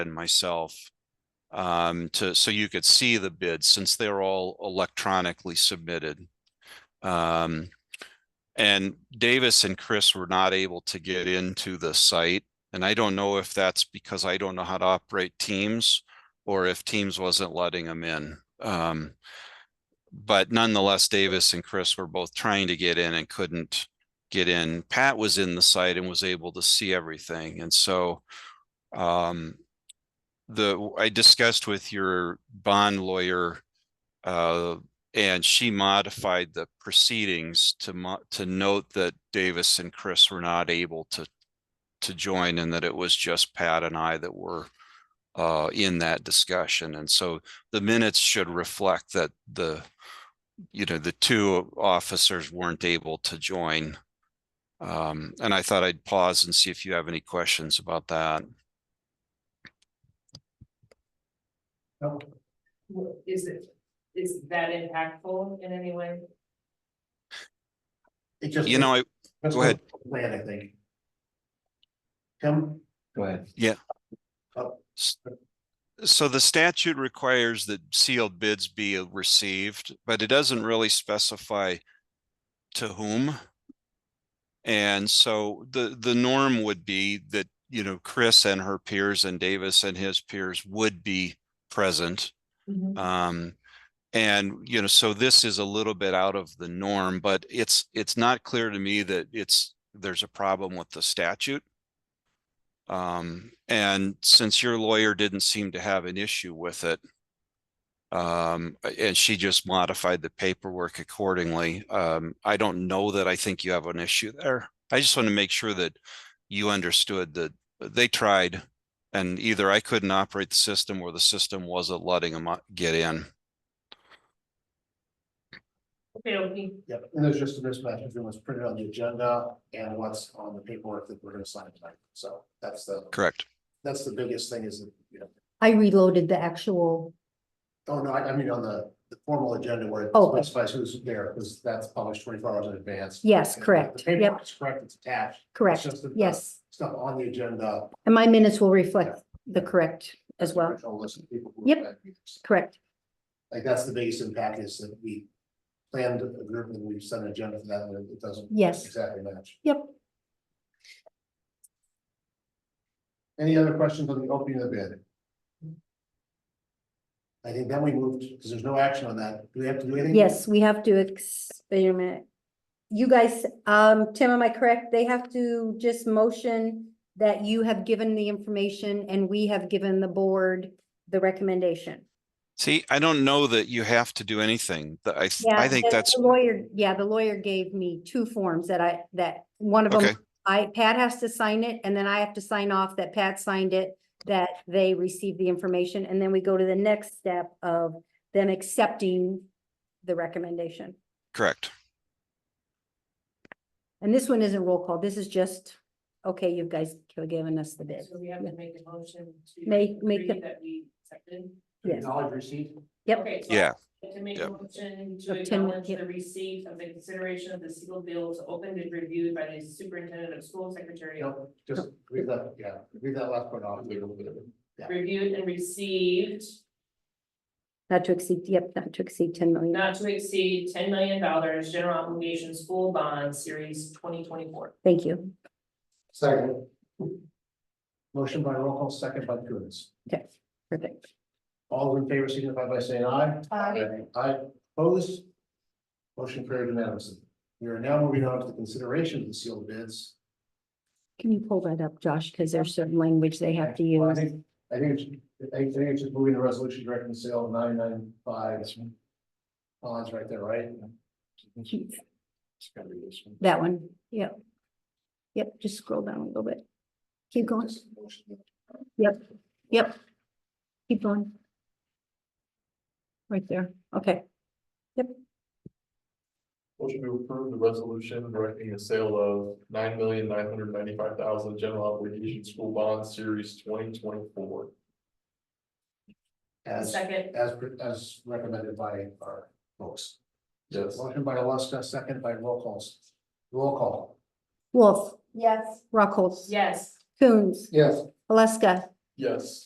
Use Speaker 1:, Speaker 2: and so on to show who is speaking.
Speaker 1: and myself. Um, to, so you could see the bids since they're all electronically submitted. Um, and Davis and Chris were not able to get into the site. And I don't know if that's because I don't know how to operate Teams or if Teams wasn't letting them in. Um, but nonetheless, Davis and Chris were both trying to get in and couldn't get in. Pat was in the site and was able to see everything. And so um, the, I discussed with your bond lawyer uh, and she modified the proceedings to mo- to note that Davis and Chris were not able to to join and that it was just Pat and I that were uh, in that discussion. And so the minutes should reflect that the, you know, the two officers weren't able to join. Um, and I thought I'd pause and see if you have any questions about that.
Speaker 2: Wha- Is it, is that impactful in any way?
Speaker 3: It just.
Speaker 1: You know, I,
Speaker 3: That's
Speaker 1: go ahead.
Speaker 3: the Plan, I think. Tim? Go ahead.
Speaker 1: So the statute requires that sealed bids be uh, received, but it doesn't really specify to whom. And so the, the norm would be that, you know, Chris and her peers and Davis and his peers would be present.
Speaker 4: Mm-hmm.
Speaker 1: Um, and, you know, so this is a little bit out of the norm, but it's, it's not clear to me that it's, there's a problem with the statute. Um, and since your lawyer didn't seem to have an issue with it. Um, and she just modified the paperwork accordingly. Um, I don't know that I think you have an issue there. I just want to make sure that you understood that they tried. And either I couldn't operate the system or the system wasn't letting them get in.
Speaker 2: Okay, okay,
Speaker 3: Yep, and there's just a mismatch between what's printed on the agenda and what's on the paperwork that we're gonna sign tonight. So that's the,
Speaker 1: Correct.
Speaker 3: that's the biggest thing is, that, you know,
Speaker 4: I reloaded the actual,
Speaker 3: oh, no, I, I mean, on the, the formal agenda where it
Speaker 4: Oh.
Speaker 3: specifies who's there, because that's published twenty-four hours in advance.
Speaker 4: Yes,
Speaker 3: And the
Speaker 4: correct. Yep.
Speaker 3: paperwork's Correct, it's attached.
Speaker 4: correct,
Speaker 3: just that the-
Speaker 4: yes.
Speaker 3: Stuff on the agenda.
Speaker 4: And my minutes will reflect the correct as well,
Speaker 3: original list of people who were
Speaker 4: Yep.
Speaker 3: there.
Speaker 4: correct.
Speaker 3: Like, that's the biggest impact is that we planned a group and we've set an agenda for that, and it doesn't.
Speaker 4: Yes.
Speaker 3: Exactly match.
Speaker 4: Yep.
Speaker 3: Any other questions on the opening of the bid? I think then we moved, because there's no action on that. Do we have to do anything?
Speaker 4: Yes, we have to, ex- wait a minute. You guys, um, Tim, am I correct? They have to just motion that you have given the information and we have given the board the recommendation.
Speaker 1: See, I don't know that you have to do anything. The- I, th-
Speaker 4: Yeah,
Speaker 1: I think
Speaker 4: the-
Speaker 1: that's,
Speaker 4: the Lawyer, yeah, the lawyer gave me two forms that I, that, one of
Speaker 1: Okay.
Speaker 4: them, I, Pat has to sign it, and then I have to sign off that Pat signed it, that they received the information, and then we go to the next step of them accepting the recommendation.
Speaker 1: correct.
Speaker 4: And this one isn't roll call, this is just, okay, you guys have given us the bid.
Speaker 2: so we have to make a motion to.
Speaker 4: Make- make
Speaker 2: agree
Speaker 4: the-
Speaker 2: That we accepted.
Speaker 4: Yes.
Speaker 3: Knowledge receipt?
Speaker 4: Yep.
Speaker 2: Okay, so I'd
Speaker 1: Yeah,
Speaker 2: like To make a
Speaker 1: Yep.
Speaker 2: motion to
Speaker 4: Of 10
Speaker 2: acknowledge
Speaker 4: yep.
Speaker 2: the receipt of the consideration of the sealed bills opened and reviewed by the superintendent of school secretary.
Speaker 3: Yep, just read that, yeah, read that last part off. Read a little bit of it.
Speaker 2: Reviewed and received
Speaker 4: Not to exceed, yep, not to exceed ten million.
Speaker 2: not to exceed ten million dollars general obligation school bond series twenty twenty four.
Speaker 4: Thank you.
Speaker 3: Second. Motion by roll call, second by Coons.
Speaker 4: Okay, perfect.
Speaker 3: All in favor signify by saying aye.
Speaker 2: Aye.
Speaker 3: Aye, opposed. Motion carried unanimously. We are now moving on to the consideration of the sealed bids.
Speaker 4: Can you pull that up, Josh? Because there's certain language they have to
Speaker 3: Well, I
Speaker 4: use.
Speaker 3: think, I think, it's- I think it's just moving the resolution directing the sale of nine nine five. Bonds right there, right? It's gotta be this one.
Speaker 4: That one, yep. Yep, just scroll down a little bit. Keep going, Yep. yep. Keep going. Right there, okay.
Speaker 5: Motion to approve the resolution directing the sale of nine million nine hundred ninety-five thousand general obligation school bond series twenty twenty-four.
Speaker 3: As,
Speaker 2: Second,
Speaker 3: as, as recommended by our folks.
Speaker 5: Yes.
Speaker 3: Motion by Alaska, second by roll calls. Roll call.
Speaker 4: Wolf,
Speaker 6: Yes.
Speaker 4: Rockholz.
Speaker 2: yes.
Speaker 4: Coons,
Speaker 3: Yes.
Speaker 4: Alaska,
Speaker 5: Yes.